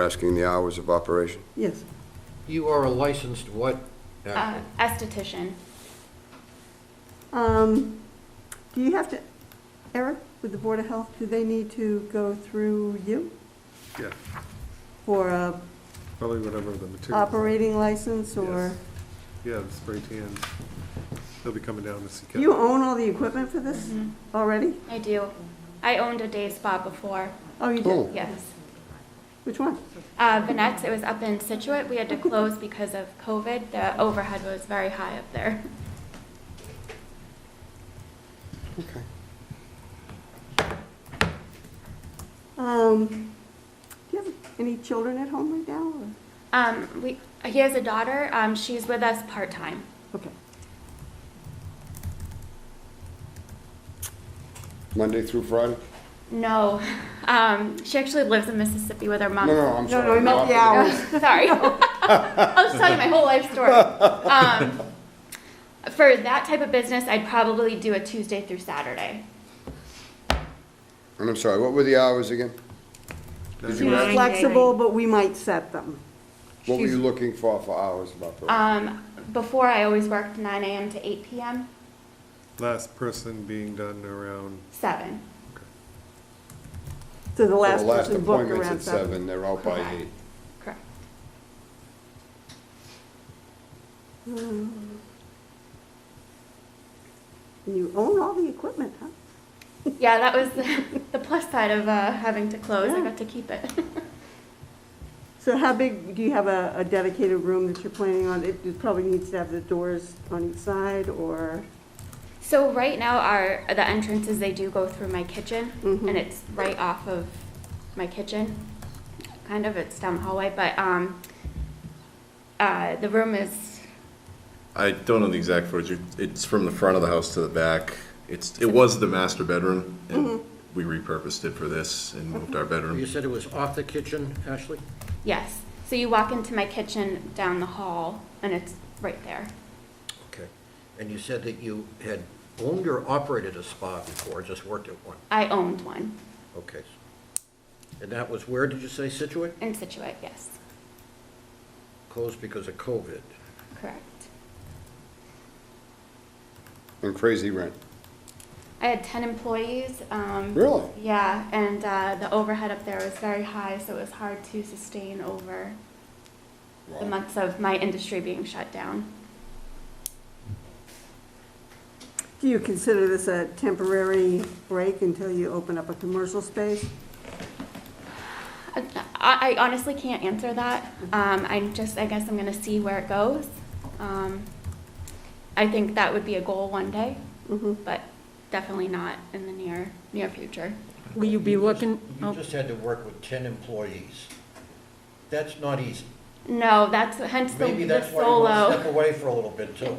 Asking the hours of operation? Yes. You are a licensed what? Uh, Uh, esthetician. Um, Do you have to, Eric, with the Board of Health, do they need to go through you Yeah, for a probably whatever the material. operating license or? Yes. Yeah, the spray tans. They'll be coming down to see. You own all the equipment for this Mhm. already? I do. I owned a day spa before. Oh, you Oh. did? Yes. Which one? Uh, Vinette's, it was up in Situate. We had to close because of COVID. The overhead was very high up there. Um, Do you have any children at home right now? or- Um, we, he has a daughter. Um, she's with us part time. Okay. Monday through Friday? No, um, she actually lives in Mississippi with her mom. Oh, No, no, I'm sorry. Uh, No, no, I meant the Not- hours. Sorry. I'll just tell you my whole life story. Um, for that type of business, I'd probably do a Tuesday through Saturday. And I'm sorry, what were the hours again? Did you ask, Flexible, but we might set them. what were you looking for, for hours of Uh, operation? Um, before, I always worked 9 a.m. to 8 p.m., Last person being done around, 7. So the So last The last person booked appointment's around at seven. seven, they're out by Correct. eight. Correct. Um, And you own all the equipment, huh? Yeah, that was the, the plus side of uh, having to close. I Yeah. got to keep it. So how big, do you have a a dedicated room that you're planning on? It it probably needs to have the doors on each side, or, so right now, our the entrances they do go through my kitchen, Mhm. and it's right off of my kitchen. Kind of, it's down the hallway, but um, uh, the room is I don't know the exact footage. It's from the front of the house to the back. It's, it was the master bedroom, and we repurposed it for this and moved our You bedroom. said it was off the kitchen, Ashley? yes. So you walk into my kitchen down the hall, and it's right there. Okay. And you said that you had owned or operated a spa before, just worked at one? I owned one Okay. And that was where, did you say, Situate? in Situate. Yes, Closed because of COVID. correct. And crazy rent. I had 10 employees. Um, Really? Yeah, and uh, the overhead up there was very high, so it was hard to sustain over the Wow. months of my industry being shut down. do you consider this a temporary break until you open up a commercial space? I, I honestly can't answer that. Um, I'm just, I guess I'm going to see where it goes. Um, I think that would be a goal one day, Mhm. but definitely not in the near near future. Will you be looking, oh. You just had to work with 10 employees. That's not easy. No, that's hence the, Maybe the that's why you want to step solo. away for a little bit, too.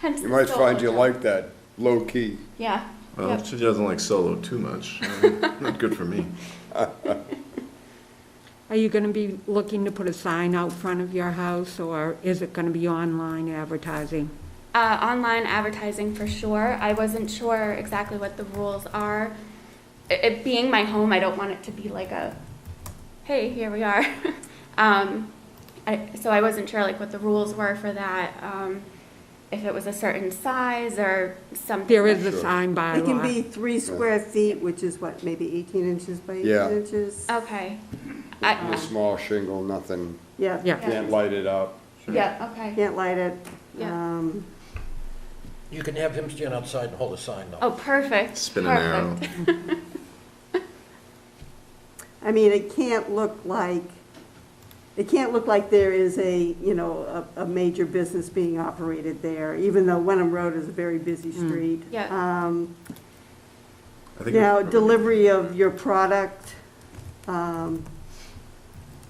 Hence You the might solo find you job. like that, low-key. Yeah. Well, yep. she doesn't like solo too much. I mean, Not good for me. are you going to be looking to put a sign out front of your house, or is it going to be online advertising? Uh, online advertising for sure. I wasn't sure exactly what the rules are. It, it being my home, I don't want it to be like a, hey, here we are. um, I, so I wasn't sure like what the rules were for that. Um, if it was a certain size or something. There is a Sure. sign by It can be law. three square feet, which is what, maybe 18 inches by 18 Yeah. inches? Okay. A Uh-huh. I, small shingle, nothing, Yeah. Yeah. can't light it up. yeah. Okay. Can't light it. Yeah. Um, You can have him stand outside and hold a sign, though. Oh, perfect. Spin an arrow. perfect. I mean, it can't look like, it can't look like there is a, you know, a, a major business being operated there, even though Wenham Road is a very busy street. Mm. Uh, Yeah. Um, I think Now, delivery of your product, um,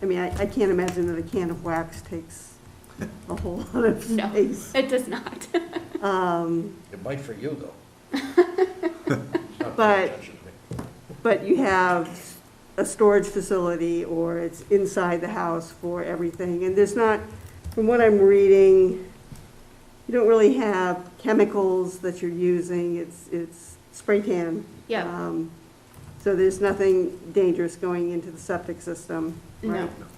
I mean, I, I can't imagine that a can of wax takes a whole lot of No, space. it does not. Um, It might for you, though. It's not paying But- attention to me. But you have a storage facility, or it's inside the house for everything, and there's not, from what I'm reading, you don't really have chemicals that you're using, it's, it's spray tan. Yeah. Um, So there's nothing dangerous going into the septic system, No. right?